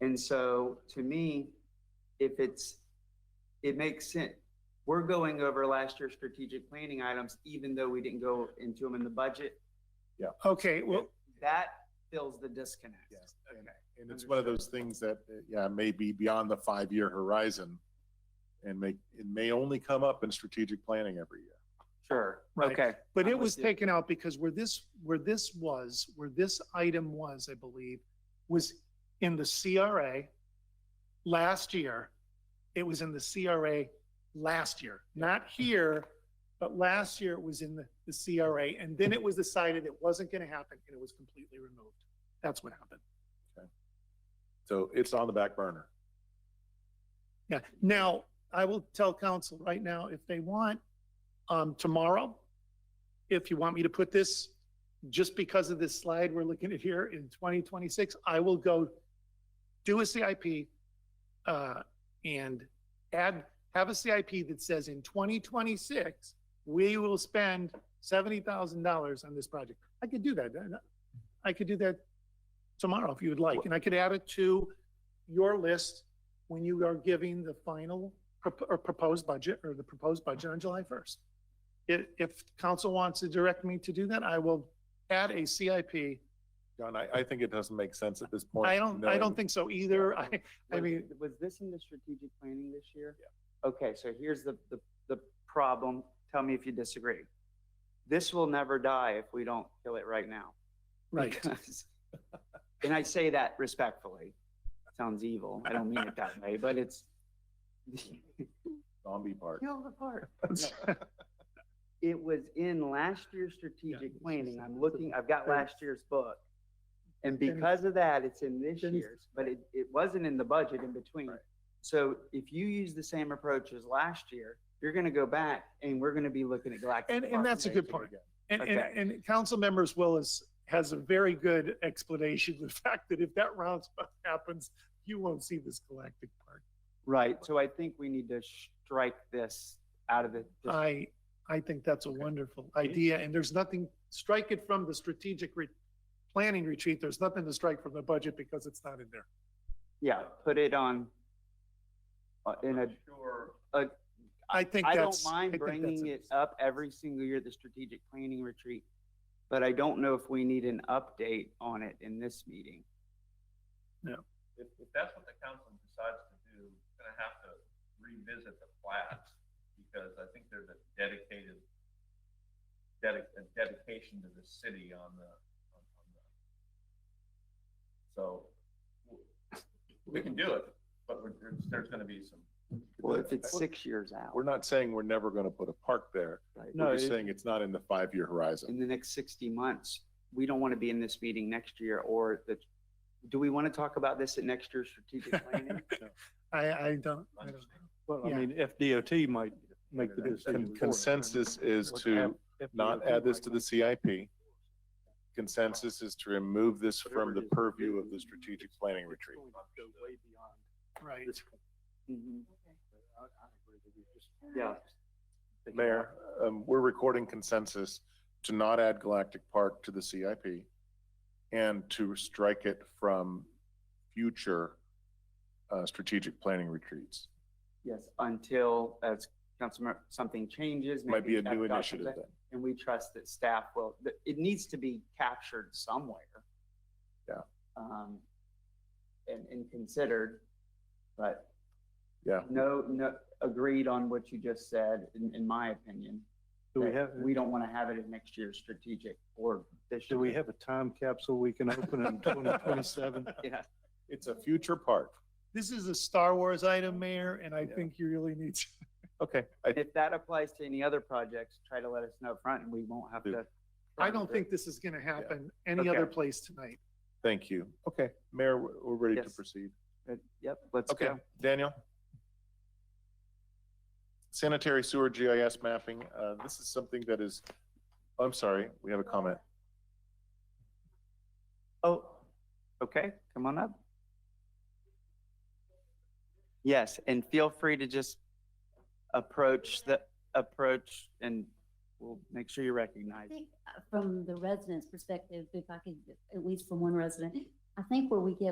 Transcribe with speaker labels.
Speaker 1: And so to me, if it's, it makes sense. We're going over last year's strategic planning items, even though we didn't go into them in the budget.
Speaker 2: Okay, well,
Speaker 1: That fills the disconnect.
Speaker 3: Yes, and, and it's one of those things that, uh, yeah, may be beyond the five-year horizon and may, it may only come up in strategic planning every year.
Speaker 1: Sure.
Speaker 2: Right.
Speaker 1: Okay.
Speaker 2: but
Speaker 1: I'm
Speaker 2: it
Speaker 1: with
Speaker 2: was
Speaker 1: you.
Speaker 2: taken out because where this, where this was, where this item was, I believe, was in the CRA last year. It was in the CRA last year, not here, but last year it was in the, the CRA. And then it was decided it wasn't going to happen and it was completely removed. That's what happened.
Speaker 3: So it's on the back burner.
Speaker 2: Yeah, now, I will tell council right now, if they want, um, tomorrow, if you want me to put this, just because of this slide we're looking at here in twenty twenty-six, I will go do a CIP, uh, and add, have a CIP that says in twenty twenty-six, we will spend seventy thousand dollars on this project. I could do that. I could do that tomorrow if you would like, and I could add it to your list when you are giving the final prop- or proposed budget or the proposed budget on July 1st. If, if council wants to direct me to do that, I will add a CIP.
Speaker 3: John, I, I think it doesn't make sense at this point.
Speaker 2: I don't, I
Speaker 3: knowing-
Speaker 2: don't think so either. I, I
Speaker 1: Was-
Speaker 2: mean-
Speaker 1: Was this in the strategic planning this year? Yeah. Okay, so here's the, the, the problem. Tell me if you disagree. This will never die if we don't kill it right now.
Speaker 2: right.
Speaker 1: Because- And I say that respectfully. Sounds evil. I don't mean it that way, but it's
Speaker 3: Zombie part.
Speaker 1: kill the part. It was in last year's strategic planning. I'm looking, I've got last year's book. And because of that, it's in this
Speaker 2: Then-
Speaker 1: year's, but it, it wasn't in the budget in between.
Speaker 3: Right.
Speaker 1: So if you use the same approach as last year, you're gonna go back and we're gonna be looking at Galactic.
Speaker 2: And- and
Speaker 1: Park.
Speaker 2: that's a good point. And,
Speaker 1: Okay.
Speaker 2: and, and council members Willis has a very good explanation, of the fact that if that roundabout happens, you won't see this galactic park.
Speaker 1: Right, so I think we need to strike this out of the.
Speaker 2: I, I think that's a wonderful idea, and there's nothing, strike it from the strategic re- planning retreat, there's nothing to strike from the budget because it's not in there.
Speaker 1: Yeah, put it on, uh, in a,
Speaker 2: I think
Speaker 1: I don't
Speaker 2: that's.
Speaker 1: mind
Speaker 2: think that's
Speaker 1: bringing it up every single year, at the strategic planning retreat. But I don't know if we need an update on it in this meeting.
Speaker 4: If, if that's what the council decides to do, it's gonna have to revisit the plats, because I think there's a dedicated, dedic, a dedication to the city on the, on on the. So, w- we can do it, but we're- there's, there's gonna be some,
Speaker 1: Well, if it's six years out,
Speaker 3: We're not saying we're never gonna put a park there.
Speaker 1: right,
Speaker 3: We're just saying it's not in the five-year horizon.
Speaker 1: in the next sixty months, we don't want to be in this meeting next year or the, do we want to talk about this at next year's strategic planning?
Speaker 2: I, I don't, I don't know.
Speaker 5: Well, I
Speaker 2: Yeah.
Speaker 5: mean, FDOT might make the
Speaker 3: Con-
Speaker 5: decision. for us.
Speaker 3: Consensus is
Speaker 5: What
Speaker 3: to
Speaker 5: hap- FDOT
Speaker 3: not add this
Speaker 5: might
Speaker 3: to
Speaker 5: make-
Speaker 3: the CIP. Consensus is to remove this from the purview of the strategic planning retreat.
Speaker 2: Right.
Speaker 1: Mhm. Yeah.
Speaker 3: Mayor, um, we're recording consensus to not add Galactic Park to the CIP and to strike it from future, uh, strategic planning retreats.
Speaker 1: Yes, until as councilmember, something changes.
Speaker 3: Might be
Speaker 1: maybe
Speaker 3: a
Speaker 1: Tech Dot
Speaker 3: new
Speaker 1: comes
Speaker 3: initiative
Speaker 1: in,
Speaker 3: then.
Speaker 1: And we trust that staff will, that it needs to be captured somewhere.
Speaker 3: Yeah.
Speaker 1: Um, and, and considered, but.
Speaker 3: Yeah.
Speaker 1: No, no, agreed on what you just said, in, in my opinion.
Speaker 5: Do we
Speaker 1: that
Speaker 5: have,
Speaker 1: We don't want to have it in next year's strategic or this.
Speaker 5: do we
Speaker 1: year.
Speaker 5: have a time capsule we can open in twenty twenty-seven?
Speaker 1: Yeah,
Speaker 3: It's a future park.
Speaker 2: This is a Star Wars item, Mayor, and I
Speaker 3: Yeah.
Speaker 2: think you really need to.
Speaker 3: Okay. I,
Speaker 1: if that applies to any other projects, try to let us know upfront and we won't have to.
Speaker 2: I don't think this is gonna happen any
Speaker 1: Okay.
Speaker 2: other place tonight.
Speaker 3: thank you. Okay, Mayor, we're, we're ready to
Speaker 1: Yes.
Speaker 3: proceed.
Speaker 1: But, Yep, let's
Speaker 3: Okay,
Speaker 1: go.
Speaker 3: Daniel? Sanitary sewer GIS mapping, uh, this is something that is, I'm sorry, we have a comment.
Speaker 1: Oh, okay, come on up. Yes, and feel free to just approach the, approach and we'll make sure you're
Speaker 6: I
Speaker 1: recognized.
Speaker 6: think uh, from the resident's perspective, if I could, at least from one resident, I think where we get